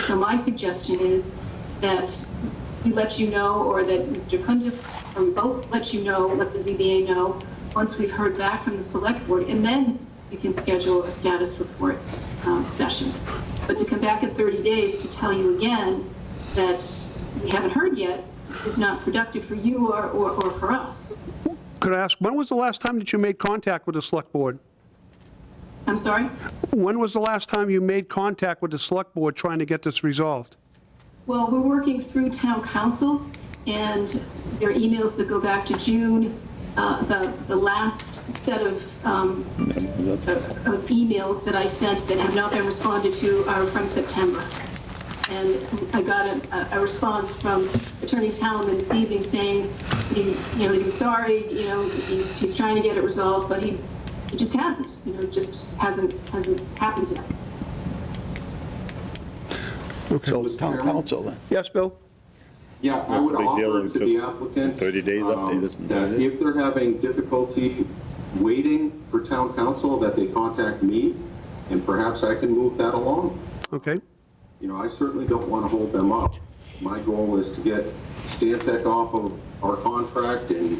So my suggestion is that we let you know, or that Mr. Cundiff from both let you know, let the ZBA know, once we've heard back from the select board, and then you can schedule a status report um, session. But to come back in 30 days to tell you again that we haven't heard yet is not productive for you or, or or for us. Could I ask, when was the last time that you made contact with the Select Board? I'm sorry? When was the last time you made contact with the Select Board trying to get this resolved? Well, we're working through town council, and there are emails that go back to June. Uh, The the last set of um, of of emails that I sent that have not been responded to are from September. And I got a- a, a response from Attorney Talman this evening saying, he, you know, he was sorry, you know, he's, he's trying to get it resolved, but he, it just hasn't, you know, just hasn't, hasn't happened yet. So the town council then. Yes, Bill? Yeah, I What's would the big deal offer with to the the applicant. 30 days um, update, isn't That it? if they're having difficulty waiting for town council, that they contact me, and perhaps I can move that along. Okay. You know, I certainly don't want to hold them up. My goal is to get Stantec off of our contract and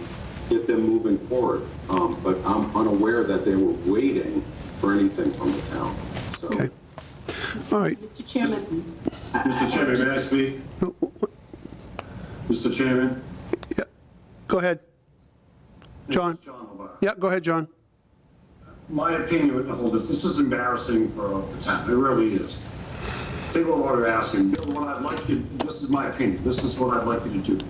get them moving forward. Um, But I'm unaware that they were waiting for anything from the town, so. Okay. All right. Mr. Chairman, Mr. Chairman, may I speak? Mr. Chairman? Go ahead. John? It's John Labar. Yeah, go ahead, John. My opinion with the whole, this this is embarrassing for the town, it really is. Think about what we're asking, Bill, what I'd like you, this is my opinion, this is what I'd like you to do,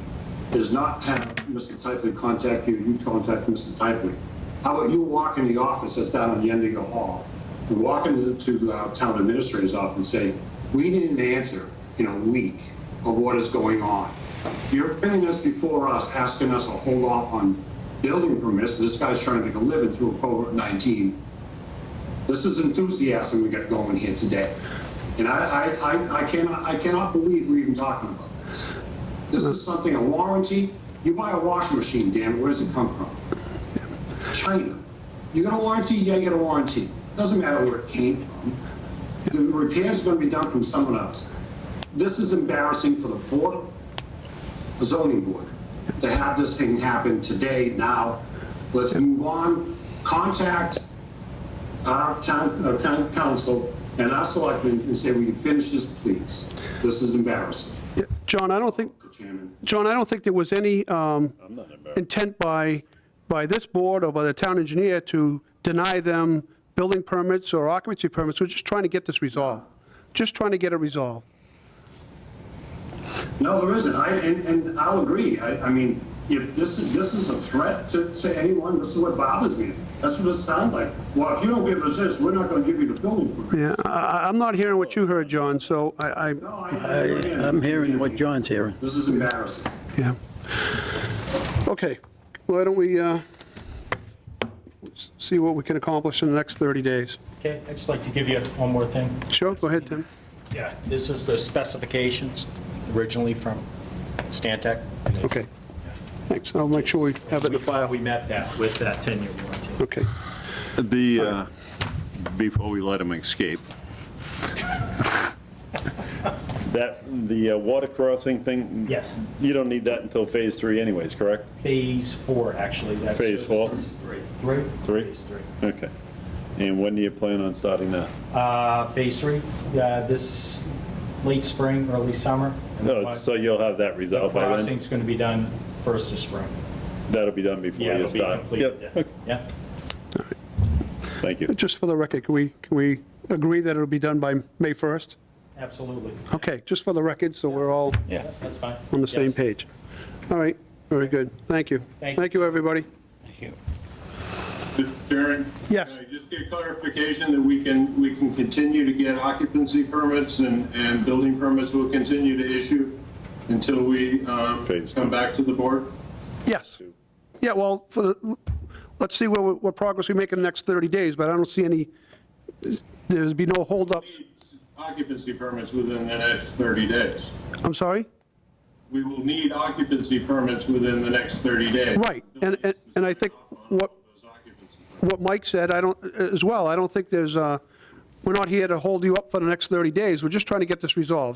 is not have Mr. Typley contact you, you contact Mr. Typley. How about you walk in the office that's down on the end of your hall, and walk into to the uh, town administrator's office and say, we need an answer in a week of what is going on. You're bringing this before us, asking us to hold off on building permits, this guy's trying to make a living through COVID-19. This is enthusiasm we got going here today. And I, I, I, I cannot, I cannot believe we're even talking about this. This is something, a warranty, you buy a washing machine, damn, it, where does it come from? China. You got a warranty, yeah, you got a warranty. Doesn't matter where it came from. The repair's gonna be done from someone else. This is embarrassing for the board, the zoning board, to have this thing happen today, now. Let's move on, contact our town, our town council and our selectmen and say, we can finish this, please. This is embarrassing, Yeah, John, I don't think, Mr. Chairman. John, I don't think there was any um, intent by, by this board or by the town engineer to deny them building permits or occupancy permits. We're just trying to get this resolved. Just trying to get it resolved. No, there isn't. I, and, and I'll agree. I, I mean, if this is, this is a threat to, to anyone, this is what bothers me. That's what it sounds like. Well, if you don't give us this, we're not gonna give you the building permit. Yeah, I- I- I'm not hearing what you heard, John, so I, I- No, I- I, I- Uh, I'm hearing what John's hearing. This is embarrassing. yeah. Okay, why don't we uh, s- see what we can accomplish in the next 30 days? Okay, I'd just like to give you one more thing. Sure, go ahead, Tim. Yeah. This is the specifications originally from Stantec. Okay, thanks. I'll make sure we have it in the file. We met that with that 10-year warranty. Okay. The, uh, before we let him escape, that, the uh, water crossing thing? Yes. You don't need that until phase three anyways, correct? Phase four, actually. that's- Phase four? Three. Three? Three? Phase three. Okay. And when do you plan on starting that? Uh, Phase three, uh, this late spring, early summer. and the Oh, pro- So you'll have that The resolved by then? crossing's going to be done first of spring. That'll be done Yeah, before you it'll be start? completed. Yep. then. Okay. Yeah. Thank you. Just for the record, can we, can we agree that it'll be done by May 1st? absolutely. Okay, just for the record, so we're all Yeah. That's fine. on the same Yes. page. All right, very good. Thank you. Thank you. Thank you, everybody. Mr. Chairman? Yes. Can I just get clarification that we can, we can continue to get occupancy permits and, and building permits will continue to issue until we um, Phase. come back to the board? Yes. Yeah, well, for, the- let's see what, what progress we make in the next 30 days, but I don't see any, there'd be no holdups. Occupancy permits within the next 30 days. I'm sorry? We will need occupancy permits within the next 30 days. Right, and- and- and I think what- Those occupancy permits. What Mike said, I don't, as well, I don't think there's, uh, we're not here to hold you up for the next 30 days. We're just trying to get this resolved.